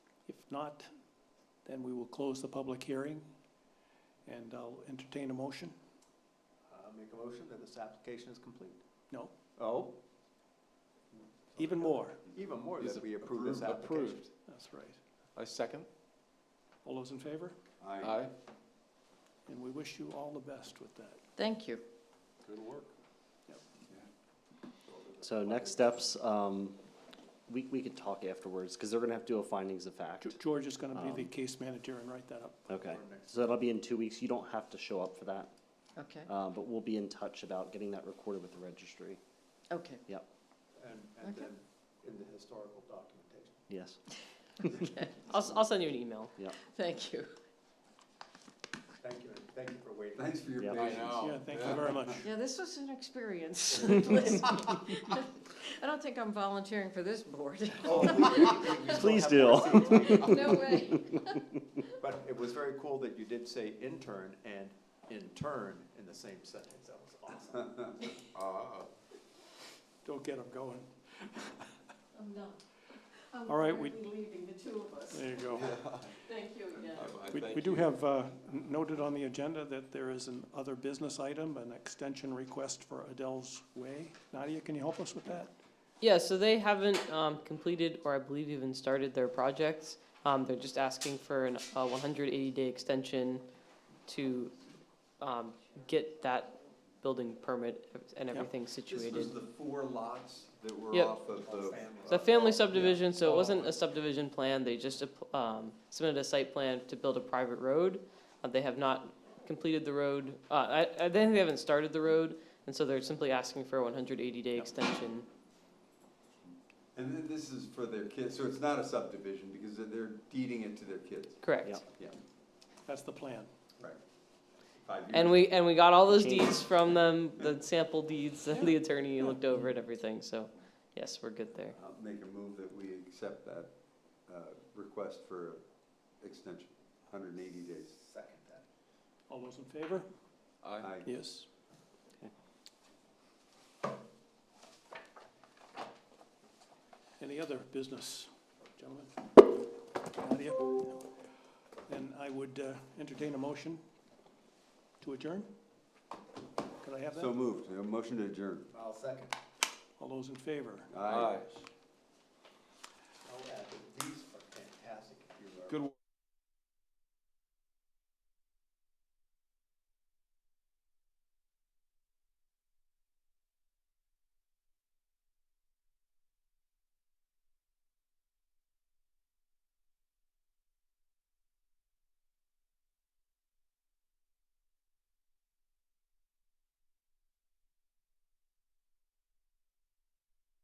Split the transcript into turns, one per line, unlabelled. not, then we will close the public hearing, and I'll entertain a motion.
I'll Uh, make a motion that this application is complete.
No,
Oh,
even more,
even more
Is
that
it
we approve this
approved?
application.
Approved.
that's right.
I second.
All those in favor?
Aye.
And we wish you all the best with that.
Thank you.
Good work.
So next steps, um, we, we could talk afterwards, because they're gonna have to do a findings of fact.
Ge- George is gonna be the
Um,
case manager and write that up.
Okay,
Or next-
so that'll be in two weeks, you don't have to show up for that,
Okay,
uh, but we'll be in touch about getting that recorded with the registry,
okay,
And, and
Okay.
then in the historical documentation.
yes.
okay. I'll, s- I'll send you an email.
Yeah.
Thank you.
Thank you, and thank you for waiting.
Thanks for your
Yeah. I
patience.
Oh, Yeah, thank you very much.
Yeah, this was an experience. Listen, I don't think I'm volunteering for this board.
Oh, we- we- we still
Please
have more seats.
No way.
But it was very cool that you did say intern and intern in the same sentence. That was awesome.
Ah.
Don't get them going.
I'm not. I'm
All right, we-
currently leaving, the two of us.
There you go.
Thank you again.
We, we do have uh, n- noted on the agenda that there is an other business item, an extension request for Adele's Way. Nadia, can you help us with that?
Yeah, so they haven't um, completed or I believe even started their projects. Um, They're just asking for an- a 180-day extension to um, get that building permit and
Yep.
everything
This
situated.
was the four lots that were
Yep.
off of the.
It's a family subdivision, so it wasn't a subdivision plan, they just um, submitted a site plan to build a private road. Uh, They have not completed the road, uh, I, I think they haven't started the road, and so they're simply asking for a one hundred eighty day extension.
And then this is for their kids, so it's not a subdivision because they're- they're deeding it to their kids,
Correct.
Yep.
That's the plan.
five years.
And we, and we got all those
Change.
deeds from them, the sample deeds, and the attorney looked over it, everything, so, yes, we're good there.
I'll uh, make a move that we accept that, uh, request for extension, hundred and eighty days.
Second that.
All those in favor?
Aye.
Aye.
Yes.
Okay.
Any other business, gentlemen? Nadia? Then I would uh, entertain a motion to adjourn? Could I have
So
that?
moved, a motion to adjourn.
I'll second.
All those in favor?
Aye.
I'll add that these are fantastic. if you are-
Good.